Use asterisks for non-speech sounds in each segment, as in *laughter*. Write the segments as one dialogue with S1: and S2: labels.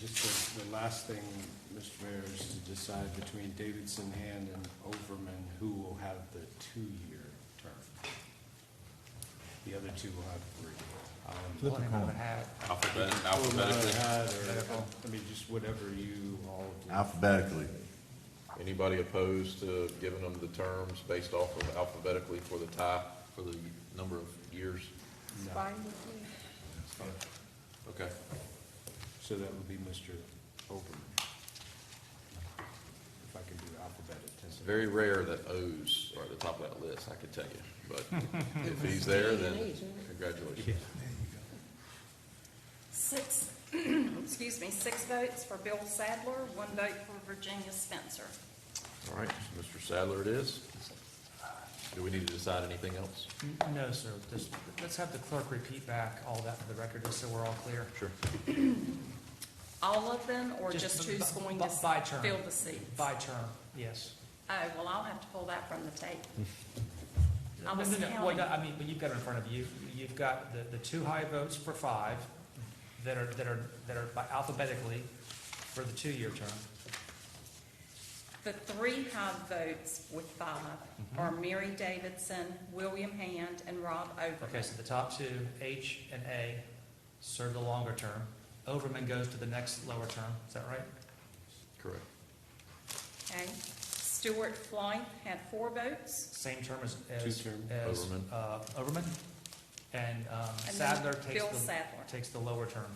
S1: Just the, the last thing, Mr. Mayor, is to decide between Davidson Hand and Overman, who will have the two-year term. The other two will have three. Um,
S2: Flip a coin.
S3: Alphabet,
S1: or not
S3: alphabetically.
S1: had, or- I mean, just whatever you all do.
S2: Alphabetically.
S3: Anybody opposed to giving them the terms based off of alphabetically for the tie, for the number of years?
S1: No.
S4: Fine with me.
S3: Okay.
S1: So that would be Mr. Overman. If I can do alphabetic.
S3: It's very rare that O's are at the top of that list, I could tell you. But if he's there, then congratulations.
S4: Six, *clears throat* excuse me, six votes for Bill Sadler, one vote for Virginia Spencer.
S3: All right, so Mr. Sadler it is. Do we need to decide anything else?
S5: N- No, sir, just, let's have the clerk repeat back all that for the record, just so we're all clear.
S3: Sure.
S4: All of them, or
S5: Just
S4: just
S5: b-
S4: who's
S5: b-
S4: going
S5: b-
S4: to
S5: by
S4: s-
S5: term.
S4: fill the seats?
S5: By term, yes.
S4: Oh, well, I'll have to pull that from the tape. I
S5: No, no,
S4: was
S5: no, no, well, no,
S4: counting.
S5: I mean, but you've got it in front of you, you've got the, the two high votes for five that are, that are, that are by alphabetically for the two-year term.
S4: The three high votes with five
S5: Mm-hmm.
S4: are Mary Davidson, William Hand, and Rob
S5: Okay,
S4: Overman.
S5: so the top two, H and A, serve the longer term. Overman goes to the next lower term, is that right?
S3: Correct.
S4: Okay. Stuart Flythe had four votes,
S5: Same term as,
S1: Two
S5: as,
S1: term.
S5: as,
S3: Overman.
S5: uh, Overman. And, um,
S4: and
S5: Sadler
S4: then
S5: takes
S4: Bill
S5: the,
S4: Sadler.
S5: takes the lower term.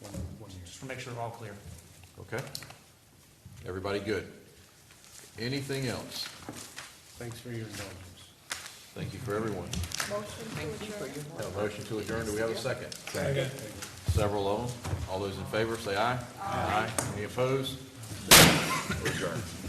S1: One, one year.
S5: Just to make sure we're all clear.
S3: Okay. Everybody good? Anything else?
S1: Thanks for your indulgence.
S3: Thank you for everyone.
S4: Motion to adjourn.
S3: Have a motion to adjourn, do we have a second? Second. Several of them, all those in favor, say aye. Aye. Any opposed? We're adjourned.